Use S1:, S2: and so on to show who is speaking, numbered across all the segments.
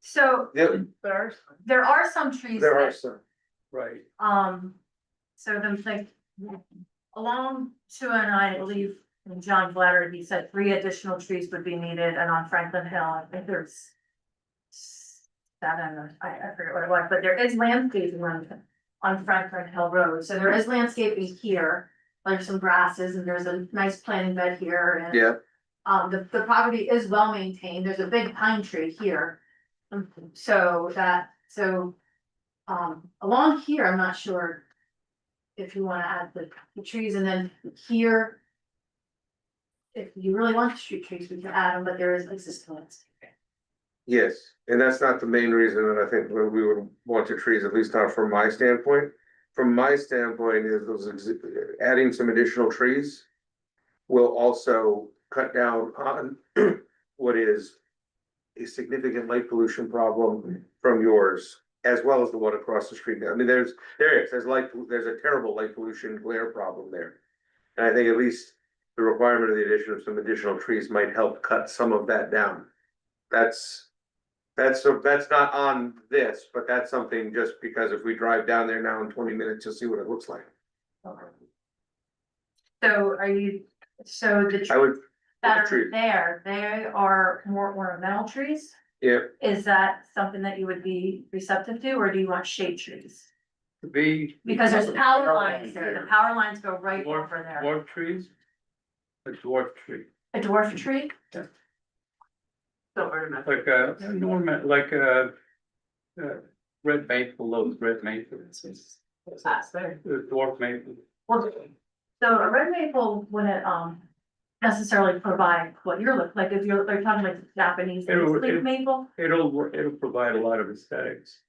S1: So
S2: There,
S3: There
S1: there are some trees
S2: there are
S1: that,
S2: some, right,
S1: um, so then like along two and I believe and John Blatter, he said three additional trees would be needed and on Franklin Hill, I think there's seven, or- I, I forget what it was, but there is landscaping on, on Franklin Hill Road, so there is landscaping here. There's some grasses and there's a nice planting bed here and
S2: yeah,
S1: Um, the, the property is well maintained, there's a big pine tree here. Um, So that, so, um, along here, I'm not sure. If you wanna add the, the trees and then here. If you really want the street trees, we can add them, but there is existing ones.
S2: yes, and that's not the main reason that I think we we would want the trees, at least not from my standpoint. From my standpoint is those, exi- adding some additional trees. Will also cut down on what is. A significant light pollution problem from yours, as well as the one across the street, I mean, there's, there is, there's light, pol- there's a terrible light pollution glare problem there. And I think at least the requirement of the addition of some additional trees might help cut some of that down. That's, that's, so that's not on this, but that's something just because if we drive down there now in twenty minutes, you'll see what it looks like.
S1: So are you, so the
S2: I would,
S1: that
S2: that are
S1: are
S2: tree.
S1: there, they are more ornamental trees?
S2: yeah,
S1: Is that something that you would be receptive to, or do you want shade trees?
S3: to be.
S1: Because there's power lines there, the power lines go right
S3: Dwarf,
S1: over there.
S3: dwarf trees. A dwarf tree,
S1: A dwarf tree?
S3: Yeah.
S1: Don't ornament.
S3: like a, an ornament, like a. uh, Red maple, those red maples. it's- it's a
S1: That's there.
S3: Dwarf maple.
S1: Ah, Well, so a red maple wouldn't um necessarily provide what you're looking, like if you're, they're talking like Japanese
S3: It would-
S1: leaf
S3: it-
S1: maple,
S3: It'll, wor- it'll provide a lot of aesthetics.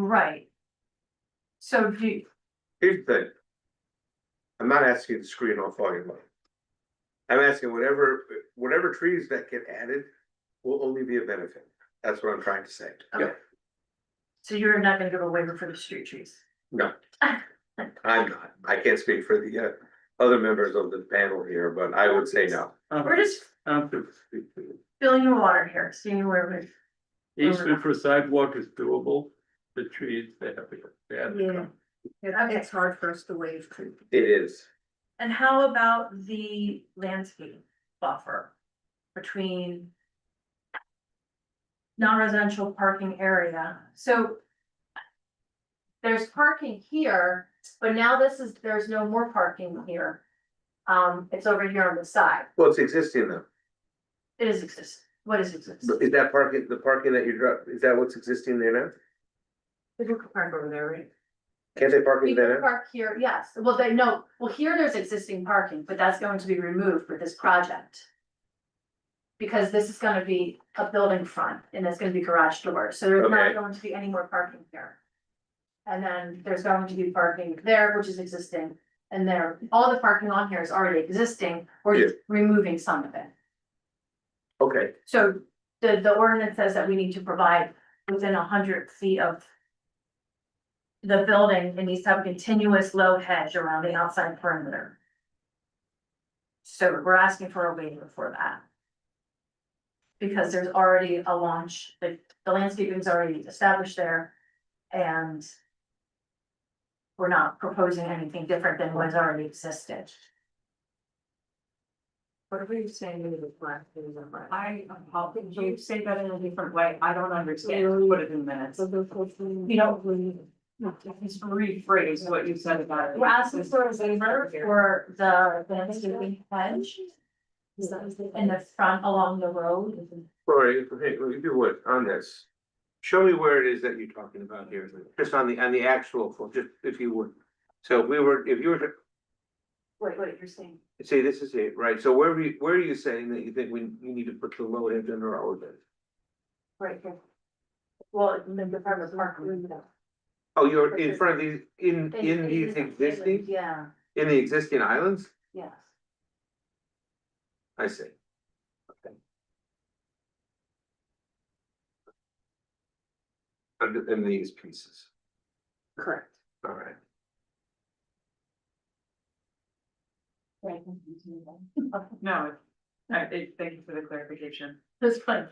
S1: right? So do, you-
S2: here's the thing. I'm not asking you to screen off all your money. I'm asking whatever, whatever trees that get added will only be a benefit, that's what I'm trying to say.
S1: Okay. so you're not gonna give a waiver for the street trees?
S2: I'm not, I can't speak for the uh other members of the panel here, but I would say no.
S3: Um,
S1: We're just filling the water here, seeing where
S3: Easement for sidewalk is doable, the trees, they have to, they have to come.
S1: we.
S4: It's hard for us to waive tree.
S2: It is.
S1: And how about the landscape buffer between non-residential parking area? So there's parking here, but now this is, there's no more parking here. Um, it's over here on the side.
S2: Well, it's existing though.
S1: It is exist. What is exist?
S2: But Is that parking, the parking that you drop, is that what's existing there now?
S4: People can park over there, right?
S2: Can't they park in
S1: People
S2: there now?
S1: park here, yes. Well, they, no, well, here there's existing parking, but that's going to be removed with this project. Because this is gonna be a building front and it's gonna be garage doors, so there's
S2: Okay.
S1: not going to be any more parking here. And then there's going to be parking there, which is existing, and there, all the parking on here is already existing, we're just removing some of it.
S2: Okay,
S1: So the, the ordinance says that we need to provide within hundred feet of. The building, it needs to have a continuous low hedge around the outside perimeter. So we're asking for a waiver for that. Because there's already a launch, like the landscaping's already established there and. We're not proposing anything different than what's already existed.
S4: What are you saying in the black things on my? I, how could you say that in a different way? I don't understand. Put it in minutes. You know. Just rephrase what you said about it.
S1: We're asking for a waiver for the landscaping hedge in the front along the road.
S2: Lori, hey, if you would, on this. Show me where it is that you're talking about here, just on the, on the actual, fo- just if you would. So if we were, if you were to
S1: Wait, wait, you're saying?
S2: See, this is it, right, so where are you, where are you saying that you think we, you need to put the low end under our ordinance?
S1: Right here. Well, in the front of the mark.
S2: Oh, you're in front of these, in, in these existing,
S1: Yeah,
S2: in the existing islands?
S1: yes.
S2: I see. Okay. Under, in these pieces,
S4: Correct.
S2: all right.
S1: Right.
S4: No, it- I, it- thank you for the clarification.
S1: This one,